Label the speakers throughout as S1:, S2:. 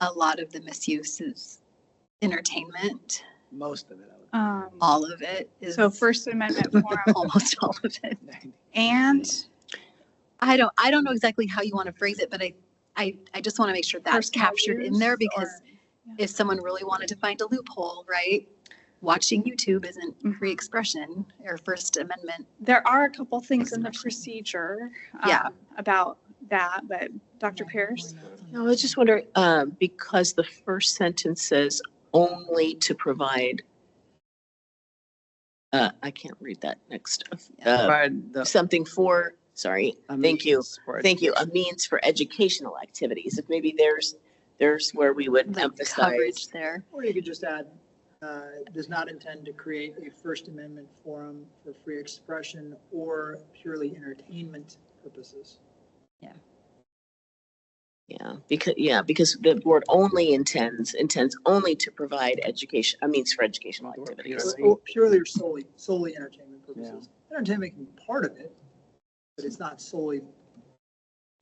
S1: a lot of the misuse is entertainment.
S2: Most of it, I
S3: Um,
S1: All of it is
S3: So First Amendment forum
S1: almost all of it.
S2: would think.
S3: and
S1: I don't I don't know exactly how you want to phrase it, but I I, I just want to make sure that's
S3: personal
S1: captured in
S3: use
S1: there because
S3: or-
S1: if someone really wanted to find a loophole, right? Watching YouTube isn't
S3: Mhm.
S1: free expression or First Amendment.
S3: There are a couple things in the
S1: Expression.
S3: procedure
S1: Yeah.
S3: um, about that, but Dr. Pierce?
S4: No, I was just wondering, uh, because the first sentence says only to provide. Uh, I can't read that next. Uh,
S2: Provide the
S4: something for, sorry, thank you,
S2: means for
S4: thank you, a means for educational activities. If maybe there's, there's where we would
S1: Like coverage
S4: emphasize.
S1: there.
S5: Or you could just add, uh, does not intend to create a First Amendment forum for free expression or purely entertainment purposes.
S4: Yeah, because, yeah, because the board only intends, intends only to provide education, a means for educational
S2: Or
S4: activities.
S2: purely.
S5: Or- or Purely or solely, solely entertainment purposes. Entertainment can be part of it, but it's not solely,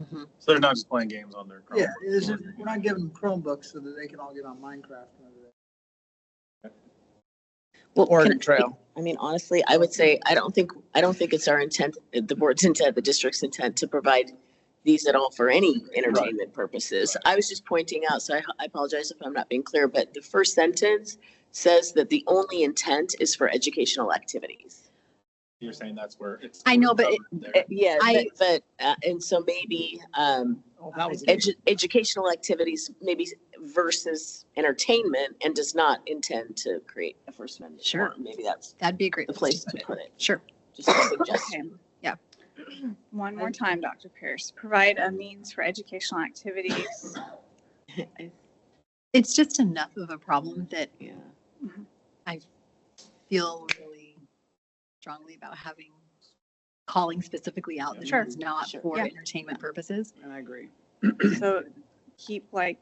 S6: So they're not just playing games on their.
S5: yeah, it isn't- we're not giving them Chromebooks so that they can all get on Minecraft. and everything.
S4: Well,
S2: Oregon
S4: can-
S2: Trail.
S4: I mean, honestly, I would say, I don't think, I don't think it's our intent, the board's intent, the district's intent to provide these at all for any entertainment purposes. I was just pointing out, so I I apologize if I'm not being clear, but the first sentence says that the only intent is for educational activities.
S6: You're saying that's where it's.
S1: I know, but it-
S6: covered
S4: Uh,
S6: there.
S4: Yeah,
S1: I-
S4: but, but, uh, and so maybe, um,
S2: Oh, that was
S4: edu- educational activities maybe versus entertainment and does not intend to create a First Amendment.
S1: Sure.
S4: forum. Maybe that's
S1: That'd be a great
S4: the place to put it,
S1: Sure.
S4: just a suggestion.
S1: Yeah.
S3: Okay. One more time, Dr. Pierce, provide a means for educational activities.
S1: It's just enough of a problem that
S4: Yeah.
S1: feel really strongly about having calling specifically out that
S3: Sure.
S1: it's not
S4: Sure.
S1: for
S3: Yeah.
S1: entertainment purposes.
S2: And I agree.
S3: So keep like,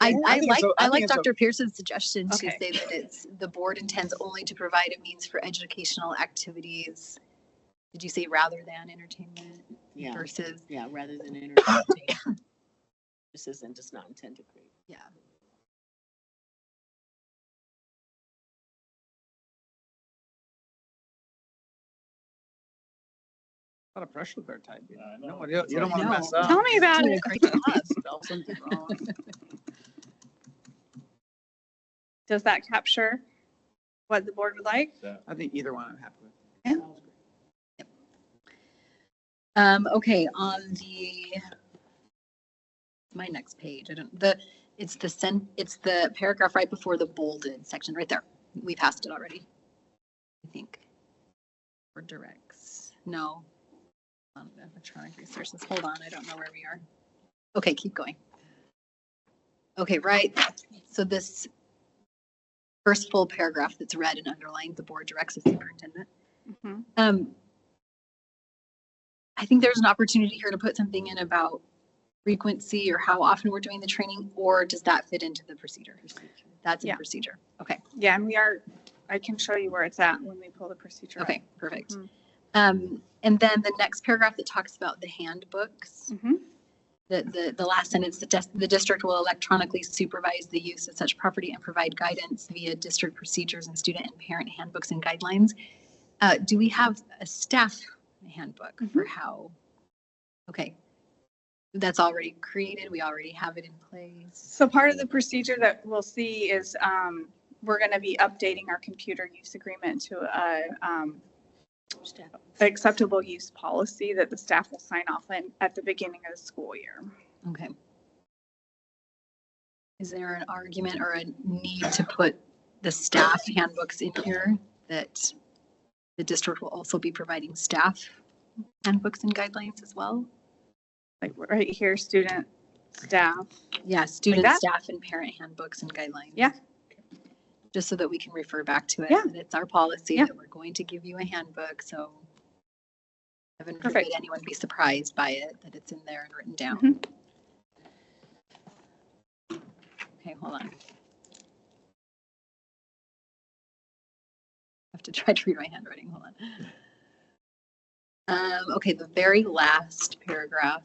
S1: I,
S2: Yeah, I
S1: I
S2: think it's
S1: like,
S2: a- I
S1: I
S2: think
S1: like
S2: it's a-
S1: Dr. Pierce's suggestion to
S3: Okay.
S1: say that it's, the board intends only to provide a means for educational activities. Did you say rather than entertainment
S4: Yeah.
S1: versus,
S4: Yeah, rather than entertaining. This isn't, does not intend to create.
S1: yeah.
S2: A lot of pressure cooker type. you know.
S6: I
S2: No,
S6: know.
S2: you don't- you don't want to
S1: No.
S2: mess
S3: tell
S2: up.
S3: me about it.
S2: Spell something wrong.
S3: Does that capture what the board would like?
S2: I think either one I'm happy with.
S1: Um, okay, on the, my next page, I don't, the, it's the sen, it's the paragraph right before the bolded section, right there. We passed it already. I think. Or directs, no. Um, Electronic resources, hold on, I don't know where we are. Okay, keep going. Okay, right, so this first full paragraph that's red and underlined, the board directs the superintendent.
S3: Mhm.
S1: Um, I think there's an opportunity here to put something in about frequency or how often we're doing the training, or does that fit into the procedure? That's in
S3: Yeah.
S1: procedure. Okay,
S3: Yeah, and we are, I can show you where it's at when we pull the procedure up.
S1: okay, perfect.
S3: Mhm.
S1: Um, and then the next paragraph that talks about the handbooks,
S3: Mhm.
S1: the, the, the last sentence, the, dis- the district will electronically supervise the use of such property and provide guidance via district procedures and student and parent handbooks and guidelines. Uh, do we have a staff handbook for how? Okay. That's already created. We already have it in place.
S3: So part of the procedure that we'll see is um, we're going to be updating our computer use agreement to a um, acceptable use policy that the staff will sign off on at the beginning of the school year.
S1: Okay. Is there an argument or a need to put the staff handbooks in here that the district will also be providing staff handbooks and guidelines as well?
S3: Like right here, student, staff.
S1: Yeah, student,
S3: that?
S1: staff, and parent handbooks and guidelines.
S3: Yeah.
S1: Just so that we can refer back to it.
S3: Yeah.
S1: that It's our policy
S3: Yeah.
S1: that we're going to give you a handbook, so heaven forbid
S3: Perfect.
S1: anyone be surprised by it, that it's in there and written down.
S3: Mhm. Mm-hmm.
S1: Okay, hold on. I have to try to read my handwriting, hold on. Um, okay, the very last paragraph.